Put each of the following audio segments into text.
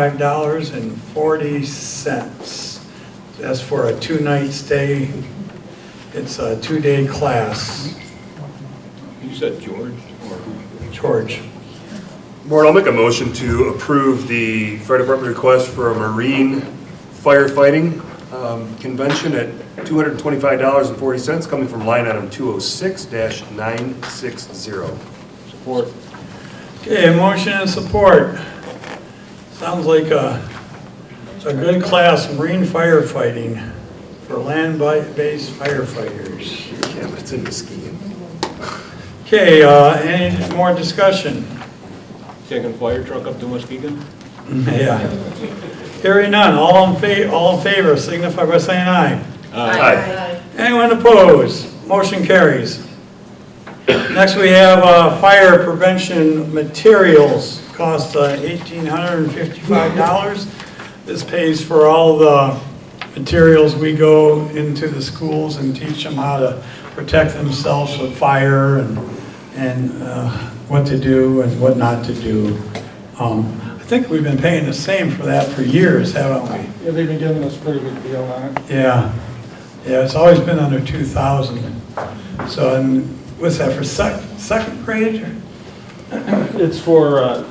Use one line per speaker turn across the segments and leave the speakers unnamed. Five dollars and forty cents. That's for a two-night stay. It's a two-day class,
You said George or
George.
Board, I'll make a motion to approve the fire department request for a marine firefighting um, convention at $225.40 coming from line item 206-960.
support?
Okay, motion and support. Sounds like a, a good class, marine firefighting for land-based firefighters.
Yeah, but it's in Muskegon.
Okay, uh, any more discussion?
Taking fire truck up to Muskegon?
Yeah. Hearing none, all in fa, all in favor, signify by saying aye.
Aye.
Anyone opposed? Motion carries. Next, we have uh, fire prevention materials, cost uh, $1,855. This pays for all the materials we go into the schools and teach them how to protect themselves with fire and, and uh, what to do and what not to do. Um, I think we've been paying the same for that for years, haven't we?
Yeah, they've been giving us a pretty good deal on it.
Yeah, yeah, it's always been under 2,000. So, and what's that, for sec, second grade? or-
It's for uh,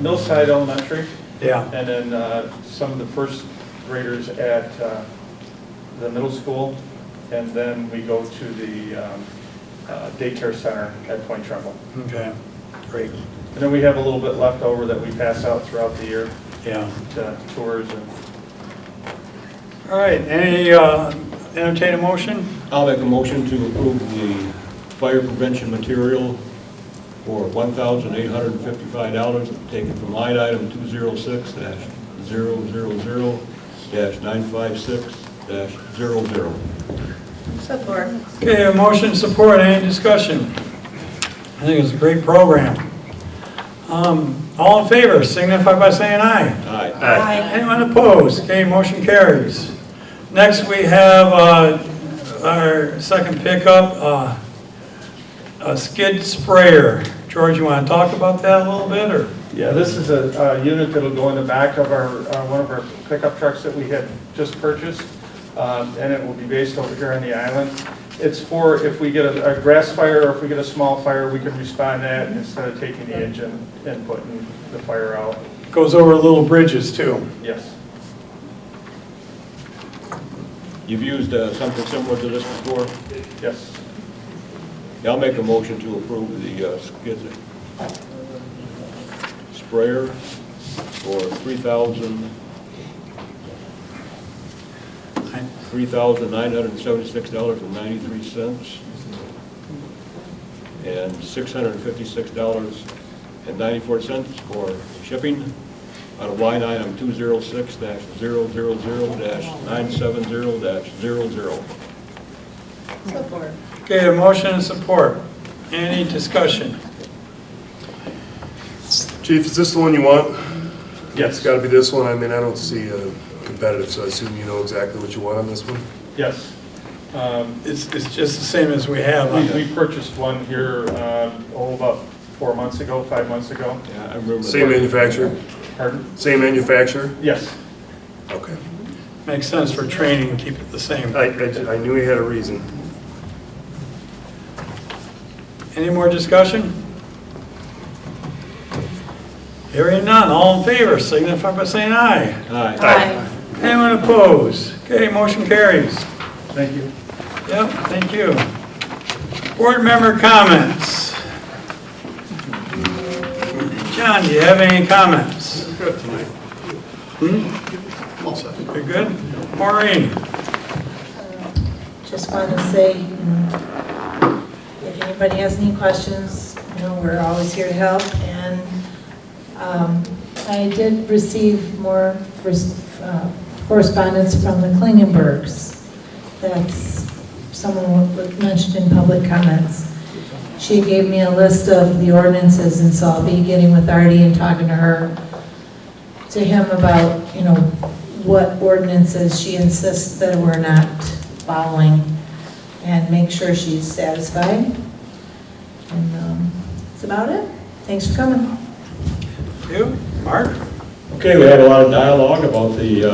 Millside Elementary,
Yeah,
and then uh, some of the first graders at uh, the middle school, and then we go to the um, uh, daycare center at Point Trumbull.
okay, great,
And then we have a little bit left over that we pass out throughout the year
yeah.
to tours and
All right, any, uh, entertain a motion?
I'll make a motion to approve the fire prevention material for one thousand eight hundred and fifty-five dollars, taken from line item two zero six dash zero zero zero dash nine five six dash zero zero.
Support.
Okay, a motion, support, any discussion? I think it's a great program. Um, all in favor, signify by saying aye.
Aye.
Aye.
Anyone opposed? Okay, motion carries. Next, we have uh, our second pickup, uh, a skid sprayer. George, you want to talk about that a little bit, or?
Yeah, this is a, a unit that'll go in the back of our, uh, one of our pickup trucks that we had just purchased, um, and it will be based over here on the island. It's for if we get a, a grass fire, or if we get a small fire, we can respond to that instead of taking the engine and putting the fire out.
Goes over little bridges, too.
Yes.
You've used uh, something similar to this before?
Yes.
Yeah, I'll make a motion to approve the uh, skid sprayer for three thousand, three thousand nine hundred and seventy-six dollars and ninety-three cents and six hundred and fifty-six dollars and ninety-four cents for shipping out of line item two zero six dash zero zero zero dash nine seven zero dash zero zero.
Support.
Okay, a motion and support. Any discussion?
Chief, is this the one you want? It's
Yes.
got to be this one. I mean, I don't see uh, competitive, so I assume you know exactly what you want on this one?
Yes. Um,
It's, it's just the same as we have. on
we,
the-
we purchased one here, um, oh, about four months ago, five months ago.
Yeah, I remember.
Same manufacturer?
Pardon?
Same manufacturer?
Yes.
Okay.
Makes sense for training, keep it the same.
I- I I knew he had a reason.
Any more discussion? Hearing none, all in favor, signify by saying aye.
Aye.
Aye.
Anyone opposed? Okay, motion carries.
Thank you.
Yep, thank you. Board member comments. John, do you have any comments? Good tonight. You're good? Maureen?
Just want to say, you know, if anybody has any questions, you know, we're always here to help. And um, I did receive more res- uh, correspondence from the Klingenbergs. That's someone was mentioned in public comments. She gave me a list of the ordinances, and so I'll be getting with Artie and talking to her to him about, you know, what ordinances she insists that we're not following and make sure she's satisfied. And um, that's about it. Thanks for coming.
You? Mark?
Okay, we had a lot of dialogue about the uh,